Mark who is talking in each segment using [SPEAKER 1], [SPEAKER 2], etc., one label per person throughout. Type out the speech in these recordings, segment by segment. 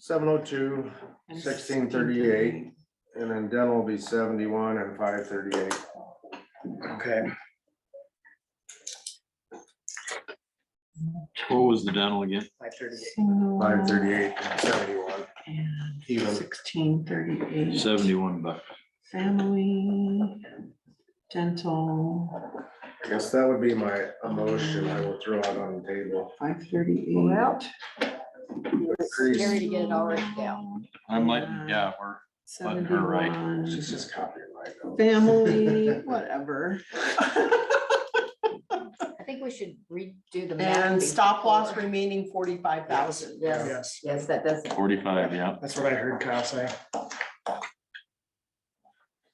[SPEAKER 1] seven oh two, sixteen thirty-eight, and then dental will be seventy-one and five thirty-eight.
[SPEAKER 2] Okay,
[SPEAKER 3] What was the dental again?
[SPEAKER 2] five thirty-eight.
[SPEAKER 1] Five thirty-eight and seventy-one. Even,
[SPEAKER 4] Sixteen thirty-eight.
[SPEAKER 3] Seventy-one bucks.
[SPEAKER 4] Family, dental,
[SPEAKER 1] I guess that would be my emotion I will throw out on the table.
[SPEAKER 4] five thirty-eight.
[SPEAKER 5] Well,
[SPEAKER 1] Increase,
[SPEAKER 5] Scary to get it all written down.
[SPEAKER 3] I might, yeah, we're, Wasn't her right.
[SPEAKER 4] Seventy-one.
[SPEAKER 1] she's just copying my notes.
[SPEAKER 4] Family, whatever.
[SPEAKER 5] I think we should redo the. math
[SPEAKER 6] And stop
[SPEAKER 5] before.
[SPEAKER 6] loss remaining forty-five thousand.
[SPEAKER 5] Yes,
[SPEAKER 2] Yes,
[SPEAKER 5] yes, that does.
[SPEAKER 3] forty-five, yeah.
[SPEAKER 2] that's what I heard Kyle say.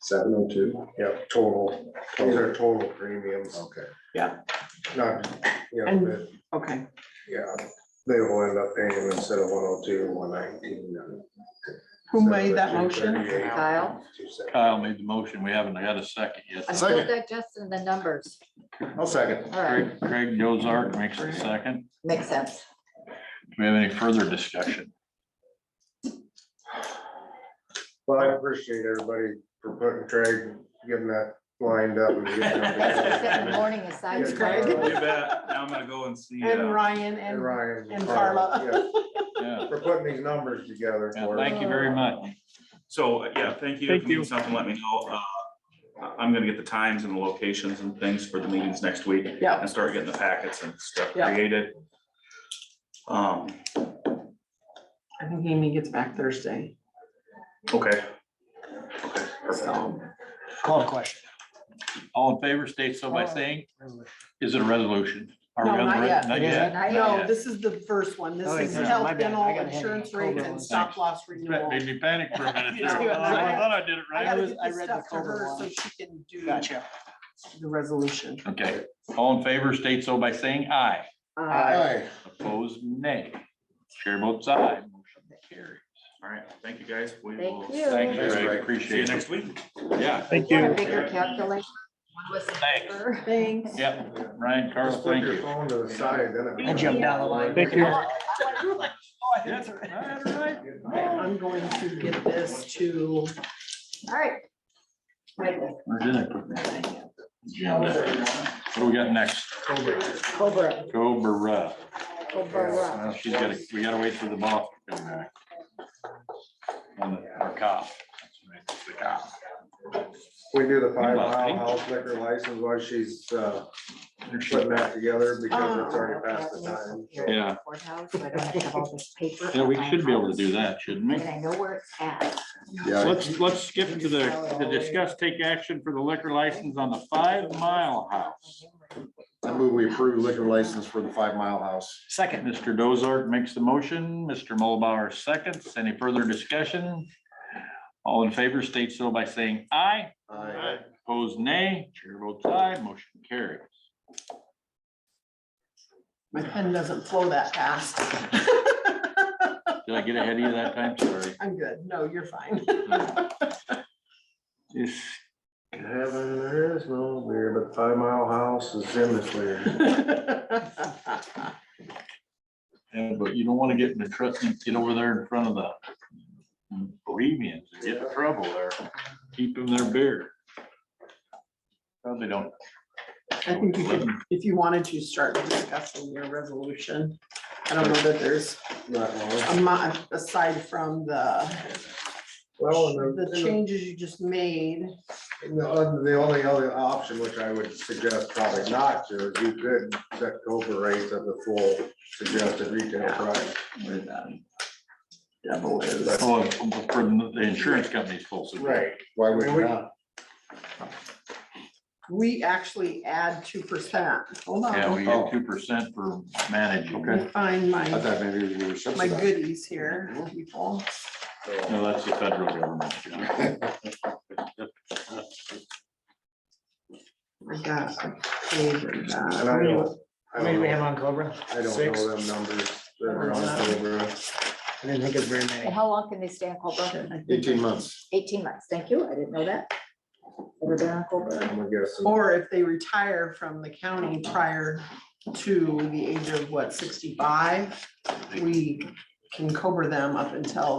[SPEAKER 1] Seven oh two. Yep, total, those are total premiums. Okay.
[SPEAKER 6] Yeah.
[SPEAKER 1] Not, you know,
[SPEAKER 4] And-
[SPEAKER 1] but,
[SPEAKER 4] Okay,
[SPEAKER 1] yeah, they will end up paying instead of one oh two, one nineteen.
[SPEAKER 4] who made that motion?
[SPEAKER 5] Kyle?
[SPEAKER 3] Kyle made the motion. We haven't had a second yet.
[SPEAKER 5] I'm still digesting the numbers.
[SPEAKER 1] I'll second.
[SPEAKER 5] All right,
[SPEAKER 3] Craig Craig Dozark makes the second.
[SPEAKER 5] makes sense.
[SPEAKER 3] Do we have any further discussion?
[SPEAKER 1] Well, I appreciate everybody for putting Craig, getting that lined up. and getting
[SPEAKER 5] Set the
[SPEAKER 1] everything.
[SPEAKER 5] morning aside.
[SPEAKER 1] Yes,
[SPEAKER 5] Craig.
[SPEAKER 1] Kyle.
[SPEAKER 7] You bet. Now I'm gonna go and see.
[SPEAKER 6] And
[SPEAKER 7] uh,
[SPEAKER 6] Ryan
[SPEAKER 1] And
[SPEAKER 6] and,
[SPEAKER 1] Ryan.
[SPEAKER 6] and Carla.
[SPEAKER 1] yeah,
[SPEAKER 3] Yeah,
[SPEAKER 1] For putting these numbers together.
[SPEAKER 3] Yeah,
[SPEAKER 1] for us.
[SPEAKER 3] thank you very much.
[SPEAKER 7] So, uh, yeah, thank you. If you need something, let me know. Uh, I- I'm gonna get the times and the locations and things for the meetings next week.
[SPEAKER 6] Yeah.
[SPEAKER 7] And start getting the packets and stuff
[SPEAKER 6] Yeah.
[SPEAKER 7] created. Um,
[SPEAKER 4] I think Amy gets back Thursday,
[SPEAKER 7] okay.
[SPEAKER 4] so.
[SPEAKER 2] Call a question.
[SPEAKER 3] All in favor, state so by saying, is it a resolution? Are we
[SPEAKER 4] No,
[SPEAKER 3] on the
[SPEAKER 4] not
[SPEAKER 3] re-
[SPEAKER 4] yet.
[SPEAKER 3] Not
[SPEAKER 2] Yeah.
[SPEAKER 3] yet.
[SPEAKER 5] Not
[SPEAKER 6] no,
[SPEAKER 5] yet.
[SPEAKER 6] this is the first one. This
[SPEAKER 2] Oh,
[SPEAKER 6] is
[SPEAKER 2] yeah, my
[SPEAKER 6] health
[SPEAKER 2] bad. I
[SPEAKER 6] dental
[SPEAKER 2] got a headache.
[SPEAKER 6] insurance
[SPEAKER 2] Hold
[SPEAKER 6] rates
[SPEAKER 2] on one
[SPEAKER 6] and stop
[SPEAKER 3] second.
[SPEAKER 6] loss
[SPEAKER 3] That
[SPEAKER 6] renewal.
[SPEAKER 3] made me panic for a minute. there.
[SPEAKER 6] Yeah.
[SPEAKER 3] I thought I did it
[SPEAKER 6] I
[SPEAKER 3] right.
[SPEAKER 6] gotta
[SPEAKER 2] was-
[SPEAKER 6] get
[SPEAKER 2] I
[SPEAKER 6] this
[SPEAKER 2] read the
[SPEAKER 6] stuff to
[SPEAKER 2] color
[SPEAKER 6] her so
[SPEAKER 2] one.
[SPEAKER 6] she can do
[SPEAKER 2] Gotcha.
[SPEAKER 6] the resolution.
[SPEAKER 3] Okay, all in favor, state so by saying aye.
[SPEAKER 5] Uh,
[SPEAKER 1] Aye.
[SPEAKER 3] Opposed, nay. Chair votes aye. Motion carries.
[SPEAKER 7] All right. Thank you, guys. We
[SPEAKER 5] Thank
[SPEAKER 7] will
[SPEAKER 5] you.
[SPEAKER 3] Thank you,
[SPEAKER 1] Thanks,
[SPEAKER 3] Greg.
[SPEAKER 1] Greg.
[SPEAKER 7] See
[SPEAKER 3] Appreciate
[SPEAKER 7] you
[SPEAKER 3] it.
[SPEAKER 7] next week.
[SPEAKER 3] Yeah.
[SPEAKER 5] Thank you. Bigger calculation. One was
[SPEAKER 3] Thanks.
[SPEAKER 5] bigger.
[SPEAKER 6] Thanks.
[SPEAKER 3] Yep, Ryan, Carl,
[SPEAKER 1] Just put
[SPEAKER 3] thank
[SPEAKER 1] your
[SPEAKER 3] you.
[SPEAKER 1] phone to the side, then.
[SPEAKER 2] I jumped down the line.
[SPEAKER 1] Thank
[SPEAKER 2] you.
[SPEAKER 3] Yes, all right, all right.
[SPEAKER 6] I'm going to get this to,
[SPEAKER 5] All right. Right there.
[SPEAKER 3] Where did I put my agenda? What do we got next?
[SPEAKER 5] Cobra.
[SPEAKER 3] Cobra.
[SPEAKER 5] Cobra.
[SPEAKER 3] Well, She's gotta, we gotta wait for the boss to come back. On the, our cop. The cop.
[SPEAKER 1] We do the five
[SPEAKER 3] Love
[SPEAKER 1] mile
[SPEAKER 3] pink.
[SPEAKER 1] house liquor license while she's, uh, putting that together because it's already past the time. so.
[SPEAKER 3] Yeah.
[SPEAKER 5] Courthouse, so I don't have all this paper.
[SPEAKER 3] Yeah, we
[SPEAKER 5] at my
[SPEAKER 3] should be able to
[SPEAKER 5] house.
[SPEAKER 3] do that, shouldn't we?
[SPEAKER 5] And I know where it's at.
[SPEAKER 3] Let's, let's skip to the, to discuss, take action for the liquor license on the Five Mile House.
[SPEAKER 8] I move we approve liquor license for the Five Mile House.
[SPEAKER 2] Second.
[SPEAKER 3] Mr. Dozart makes the motion, Mr. Mulbauer seconds. Any further discussion? All in favor, state so by saying aye.
[SPEAKER 8] Aye.
[SPEAKER 3] Opposed, nay. Chair votes aye. Motion carries.
[SPEAKER 6] my pen doesn't flow that fast.
[SPEAKER 3] Did I get ahead of you that time? Sorry.
[SPEAKER 6] I'm good. No, you're fine.
[SPEAKER 3] Yes.
[SPEAKER 1] Heaven, there is no weird, but five mile house is in this weird.
[SPEAKER 3] Yeah, but you don't want to get in the trust, get over there in front of the Bohemians, and get in trouble there, keep them their beer. Probably don't.
[SPEAKER 6] I think you could, if you wanted to start discussing your resolution. I don't know that there's
[SPEAKER 1] Not long.
[SPEAKER 6] a mo- aside from the,
[SPEAKER 1] Well, and
[SPEAKER 6] the
[SPEAKER 1] the-
[SPEAKER 6] changes you just made.
[SPEAKER 1] and the, other- the only other option, which I would suggest probably not to, is you could set Cobra rates at the full suggested retail price.
[SPEAKER 6] where the Devil is.
[SPEAKER 3] Oh, from the insurance company's full. support.
[SPEAKER 8] Why would
[SPEAKER 1] And we-
[SPEAKER 8] you not?
[SPEAKER 6] We actually add two percent. Hold
[SPEAKER 3] Yeah,
[SPEAKER 6] on.
[SPEAKER 3] we get two percent for managing.
[SPEAKER 6] Let me Find
[SPEAKER 8] I
[SPEAKER 6] my,
[SPEAKER 8] thought maybe we were
[SPEAKER 6] my
[SPEAKER 8] subsidized.
[SPEAKER 6] goodies here, people.
[SPEAKER 3] No, that's the federal government.
[SPEAKER 6] I got. a page of that.
[SPEAKER 1] And I don't, I
[SPEAKER 2] How many do
[SPEAKER 1] don't
[SPEAKER 2] we have
[SPEAKER 1] know,
[SPEAKER 2] on Cobra?
[SPEAKER 1] I don't
[SPEAKER 2] Six?
[SPEAKER 1] know them numbers. that are on Cobra.
[SPEAKER 2] I didn't think it was very
[SPEAKER 5] And
[SPEAKER 2] many.
[SPEAKER 5] how long can they stay on Cobra?
[SPEAKER 8] Eighteen months.
[SPEAKER 5] Eighteen months. Thank you. I didn't know that. Ever been on Cobra?
[SPEAKER 1] I'm guessing.
[SPEAKER 6] Or if they retire from the county prior to the age of what, sixty-five, we can cover them up until